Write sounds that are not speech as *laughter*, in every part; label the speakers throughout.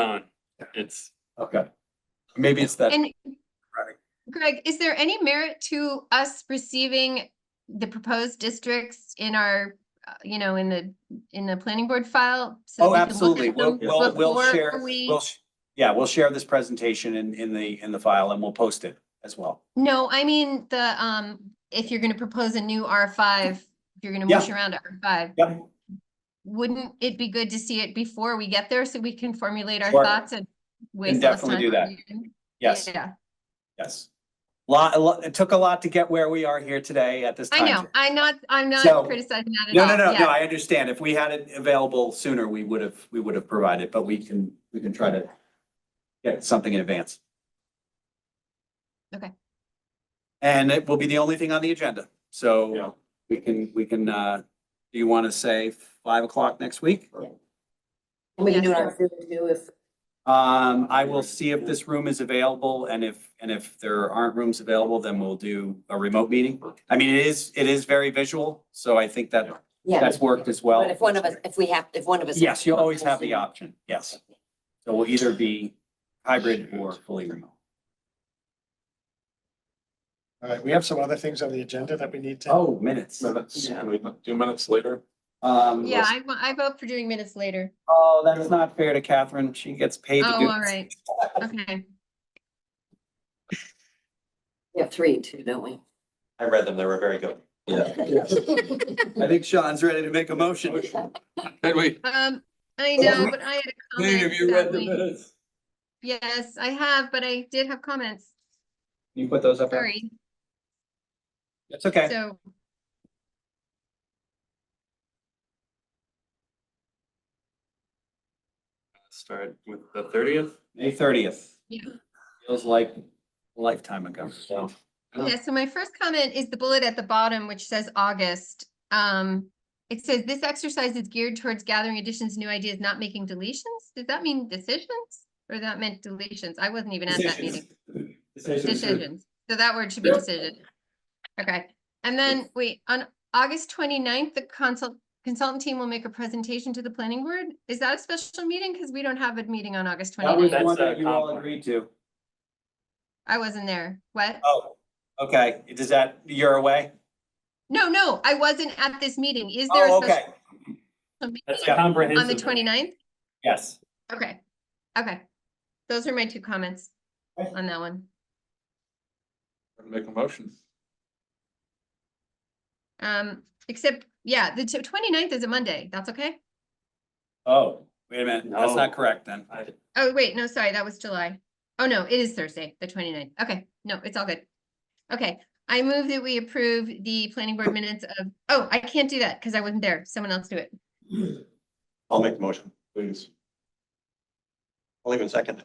Speaker 1: on. It's,
Speaker 2: Okay. Maybe it's that,
Speaker 3: And Greg, is there any merit to us receiving the proposed districts in our, uh, you know, in the, in the planning board file? so
Speaker 2: oh,
Speaker 3: we can look at
Speaker 2: absolutely. We'll,
Speaker 3: them
Speaker 2: we'll, we'll
Speaker 3: before
Speaker 2: share,
Speaker 3: we-
Speaker 2: we'll, sh- yeah, we'll share this presentation in, in the, in the file and we'll post it as well.
Speaker 3: No, I mean, the, um, if you're gonna propose a new R five, if you're gonna mush around R five.
Speaker 2: Yep.
Speaker 3: Wouldn't it be good to see it before we get there so we can formulate our
Speaker 2: Sure.
Speaker 3: thoughts and waste less
Speaker 2: definitely
Speaker 3: time
Speaker 2: do
Speaker 3: on
Speaker 2: that.
Speaker 3: reading?
Speaker 2: Yes,
Speaker 3: Yeah,
Speaker 2: yes. Lot, a lot, it took a lot to get where we are here today at this time.
Speaker 3: I know. I'm not, I'm
Speaker 2: So-
Speaker 3: not criticizing that at
Speaker 2: No,
Speaker 3: all.
Speaker 2: no, no,
Speaker 3: Yeah.
Speaker 2: no, I understand. If we had it available sooner, we would have, we would have provided, but we can, we can try to get something in advance.
Speaker 3: Okay.
Speaker 2: And it will be the only thing on the agenda,
Speaker 1: Yeah.
Speaker 2: so we can, we can, uh, do you want to say five o'clock next week?
Speaker 4: We can do it
Speaker 3: Yes,
Speaker 4: on Zoom too if,
Speaker 2: Um, I will see if this room is available and if, and if there aren't rooms available, then we'll do a remote meeting. I mean, it is, it is very visual, so I think that,
Speaker 4: yeah,
Speaker 2: that's worked as well.
Speaker 4: but if one of us, if we have, if one of us.
Speaker 2: Yes, you'll always have the option, yes. So we'll either be hybrid or fully remote.
Speaker 5: All right, we have some other things on the agenda that we need to.
Speaker 2: Oh, minutes.
Speaker 1: minutes,
Speaker 2: Yeah.
Speaker 1: can we not do minutes later?
Speaker 2: Um,
Speaker 3: Yeah, I, wa- I vote for doing minutes later.
Speaker 2: oh, that is not fair to Catherine. She gets paid to
Speaker 3: Oh,
Speaker 2: do.
Speaker 3: all right. Okay.
Speaker 4: We have three too, don't we?
Speaker 2: I read them. They were very good.
Speaker 3: uh,
Speaker 2: I think Sean's ready to make a motion.
Speaker 1: Did we?
Speaker 3: Um, I know, but I had a comment.
Speaker 1: Have you read the
Speaker 3: sadly.
Speaker 1: minutes?
Speaker 3: Yes, I have, but I did have comments.
Speaker 2: You put those up. there?
Speaker 3: Sorry.
Speaker 2: It's okay.
Speaker 3: So
Speaker 1: Start with the thirtieth?
Speaker 2: May thirtieth.
Speaker 3: Yeah.
Speaker 2: Feels like a lifetime ago. So
Speaker 1: Oh.
Speaker 3: Yeah, so my first comment is the bullet at the bottom, which says August. Um, it says this exercise is geared towards gathering additions, new ideas, not making deletions. Does that mean decisions? Or that meant deletions? I wasn't even at that meeting. Decisions. So that word should be decision. Okay, and then wait, on August 29th, the consult consultant team will make a presentation to the planning board. Is that a special meeting? Because we don't have a meeting on August
Speaker 2: that uh, was
Speaker 3: 29th.
Speaker 2: the one
Speaker 1: That's
Speaker 2: that
Speaker 1: a
Speaker 2: you all
Speaker 1: compliment.
Speaker 2: agreed to.
Speaker 3: I wasn't there. What?
Speaker 2: Oh, okay. Does that, you're away?
Speaker 3: No, no, I wasn't at this meeting. Is there
Speaker 2: Oh,
Speaker 3: a
Speaker 2: okay.
Speaker 3: special meeting
Speaker 1: That's
Speaker 2: Yeah.
Speaker 1: a
Speaker 2: On
Speaker 3: on the
Speaker 1: comprehensive.
Speaker 3: 29th?
Speaker 2: Yes.
Speaker 3: Okay, okay. Those are my two comments
Speaker 2: Okay.
Speaker 3: on that one.
Speaker 1: Make a motion.
Speaker 3: Um, except, yeah, the t- 29th is a Monday. That's okay?
Speaker 2: Oh, wait a minute. That's not
Speaker 1: No.
Speaker 2: correct then.
Speaker 1: I,
Speaker 3: Oh, wait, no, sorry, that was July. Oh, no, it is Thursday, the 29th. Okay, no, it's all good. Okay, I move that we approve the planning board minutes of, oh, I can't do that because I wasn't there. Someone else do it.
Speaker 6: I'll make the motion, please. I'll even second.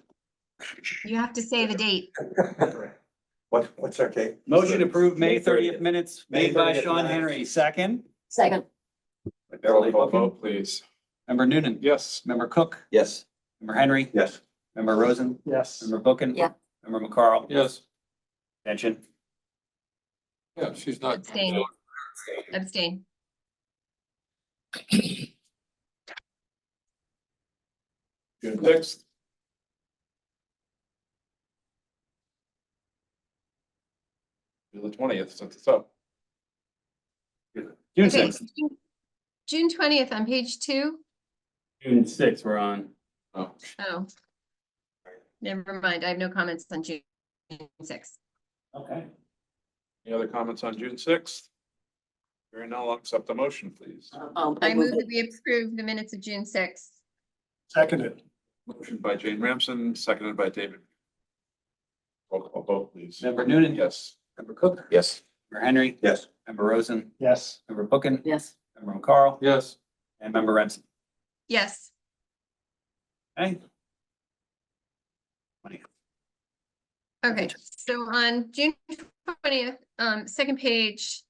Speaker 3: You have to say the date.
Speaker 6: it. *laughs* What, what's our date?
Speaker 2: Motion approved, May
Speaker 6: May 30th.
Speaker 2: thirtieth minutes,
Speaker 6: May
Speaker 2: made by
Speaker 6: 30th
Speaker 2: Sean
Speaker 6: minutes.
Speaker 2: Henry, second.
Speaker 4: Second,
Speaker 1: roll call vote, please.
Speaker 2: Member Noonan,
Speaker 1: Yes.
Speaker 2: member Cook,
Speaker 6: Yes.
Speaker 2: member Henry,
Speaker 6: Yes.
Speaker 2: member Rosen,
Speaker 5: Yes.
Speaker 2: member Bookin.
Speaker 4: Yeah.
Speaker 2: Member McCarl.
Speaker 1: Yes.
Speaker 2: Attention.
Speaker 1: Yeah, she's not.
Speaker 3: Abstain. Abstain.
Speaker 1: Good. Next. Do The twentieth, since it's up.
Speaker 2: June
Speaker 3: Okay,
Speaker 2: sixth.
Speaker 3: June- June twentieth on page two.
Speaker 1: June sixth, we're on. Oh,
Speaker 3: Oh. Never mind, I have no comments on June sixth.
Speaker 2: Okay.
Speaker 1: any other comments on June sixth? Hearing none, I'll accept the motion, please.
Speaker 4: um,
Speaker 3: I move that we approve the minutes of June sixth.
Speaker 5: Seconded,
Speaker 1: Motion by Jane Ramsden, seconded by David. Roll call vote, please.
Speaker 2: Member Noonan.
Speaker 1: Yes.
Speaker 2: Member Cook,
Speaker 6: Yes.
Speaker 2: member Henry,
Speaker 6: Yes.
Speaker 2: member Rosen,
Speaker 5: yes.
Speaker 2: member Bookin,
Speaker 4: yes.
Speaker 2: member McCarl,
Speaker 1: Yes.
Speaker 2: and member Remsen.
Speaker 3: Yes,
Speaker 2: Okay.
Speaker 3: okay, so on June twentieth, um, second page.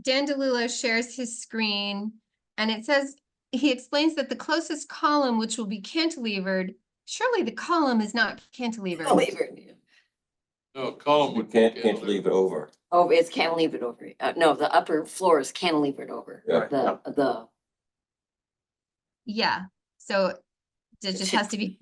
Speaker 3: Dan DeLillo shares his screen and it says, he explains that the closest column, which will be cantilevered, surely the column is not cantilevered.
Speaker 4: Can't leave it.
Speaker 1: No, column
Speaker 6: You
Speaker 1: would.
Speaker 6: Oh, can't, can't leave it over.
Speaker 4: Oh, it's can't leave it over. Uh, no, the upper floor is can't leave it over.
Speaker 6: Yeah.
Speaker 4: The, the
Speaker 3: Yeah, so it just has to be